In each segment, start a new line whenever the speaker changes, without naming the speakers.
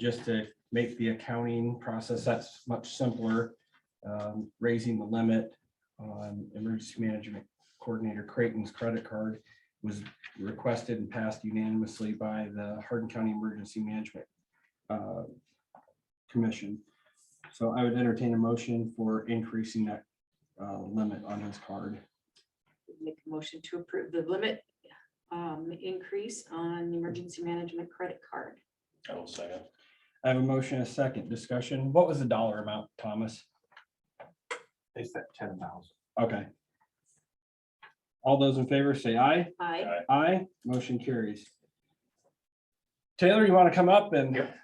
just to make the accounting process that's much simpler. um, Raising the limit on emergency management coordinator Creighton's credit card was requested and passed unanimously by the Hardin County Emergency Management uh, Commission. So I would entertain a motion for increasing that uh, limit on his card.
Make a motion to approve the limit um, increase on the emergency management credit card.
I'll second.
I have a motion, and a second discussion. What was the dollar amount, Thomas?
They said ten thousand.
Okay. All those in favor say aye.
I,
Aye, motion carries. Taylor, you want to come up and?
Yep.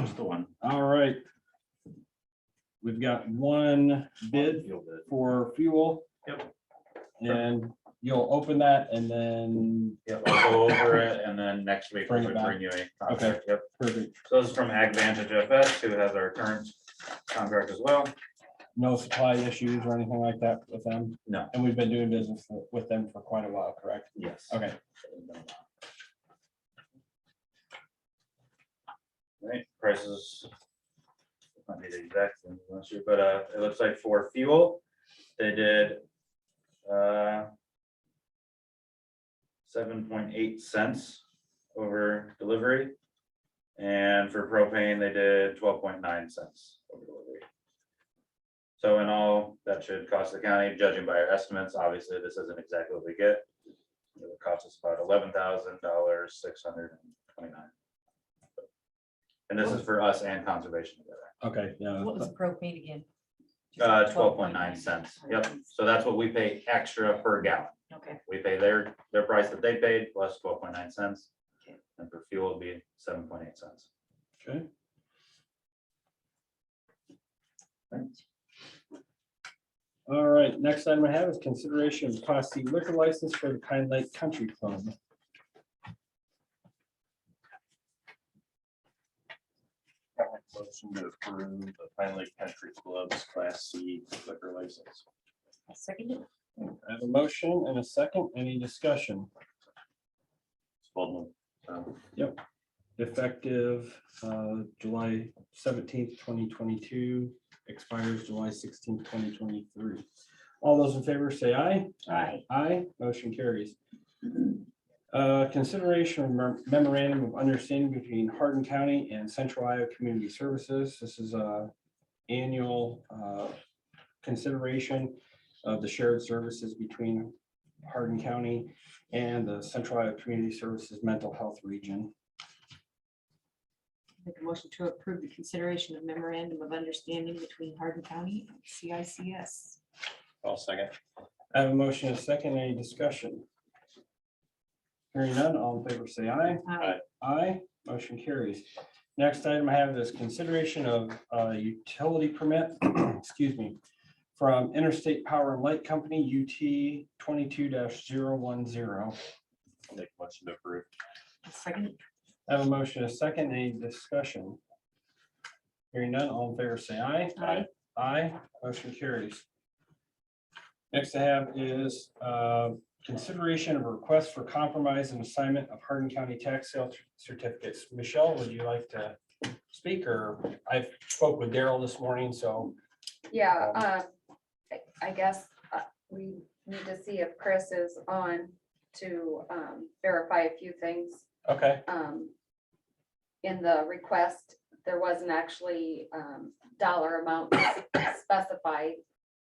Just the one.
All right. We've got one bid
You'll bid.
for fuel.
Yep.
And you'll open that and then,
Yep, I'll go over it and then next week
Bring
we
it
would
back.
bring you a. contract. Yep.
perfect,
So this is from Ag Vantage FS who has our current contract as well.
no supply issues or anything like that with them.
No.
And we've been doing business with them for quite a while, correct?
Yes.
Okay.
Right, prices. Might be the exact same as last year, but uh, it looks like for fuel, they did. uh Seven point eight cents over delivery. And for propane, they did twelve point nine cents over delivery. So in all, that should cost the county, judging by our estimates, obviously, this isn't exactly what we get. It would cost us about eleven thousand dollars, six hundred and twenty-nine. And this is for us and conservation together,
Okay, yeah.
What was the propane again?
uh, twelve point nine cents, yep, so that's what we pay extra per gallon.
Okay,
We pay their, their price that they paid plus twelve point nine cents.
Okay.
And for fuel, it'd be seven point eight cents.
Okay. All right, next item I have is consideration of class C liquor license for the Pine Lake Country Club.
Motion to approve the Pine Lake Country Club's Class C liquor license.
I second it.
I have a motion and a second, any discussion
Spelman. um,
effective uh, July seventeenth, twenty twenty-two, expires July sixteenth, twenty twenty-three. All those in favor say aye.
Aye.
Aye, motion carries. Uh, Consideration of mem- memorandum of understanding between Hardin County and Central Iowa Community Services. This is a annual uh, consideration of the shared services between Hardin County and the Central Iowa Community Services Mental Health Region.
make a motion to approve the consideration of memorandum of understanding between Hardin County and CICS.
I'll second.
I have a motion and a second. Any discussion? Hearing none, all in favor say aye.
I,
Aye, motion carries. Next item I have is consideration of uh, utility permit, excuse me, from Interstate Power and Light Company, UT twenty-two 10
I'll Make a motion to approve.
I second it.
I Have a motion, and a second, any discussion? Hearing none, all in favor, say aye.
Aye.
Aye, motion carries. Next I have is uh, consideration of a request for compromise and assignment of Hardin County tax sale certificates. Michelle, would you like to speak, or I spoke with Daryl this morning, so.
Yeah, uh, I- I guess uh, we need to see if Chris is on to um, verify a few things.
Okay,
Um, In the request, there wasn't actually um, dollar amount specified.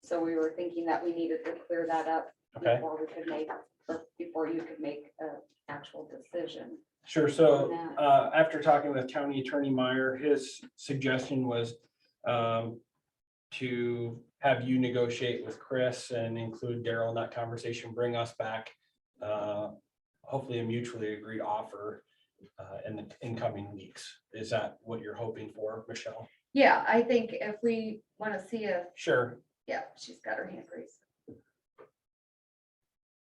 So we were thinking that we needed to clear that up
okay,
before we could make, or before you could make an actual decision.
sure, so uh, after talking with County Attorney Meyer, his suggestion was um, to have you negotiate with Chris and include Daryl in that conversation, bring us back uh, hopefully a mutually agreed offer uh, in the incoming weeks. Is that what you're hoping for, Michelle?
Yeah, I think if we want to see if
Sure,
Yeah, she's got her hand raised.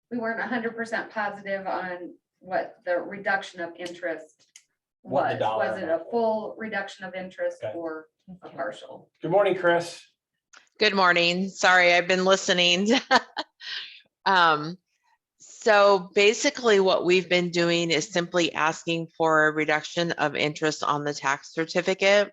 We weren't hundred percent positive on what the reduction of interest
What the
was.
dollar
Was it a
amount was.
full reduction of interest
Okay.
or a
Okay.
partial?
good morning, Chris.
Good morning. Sorry, I've been listening. Um, So basically, what we've been doing is simply asking for a reduction of interest on the tax certificate.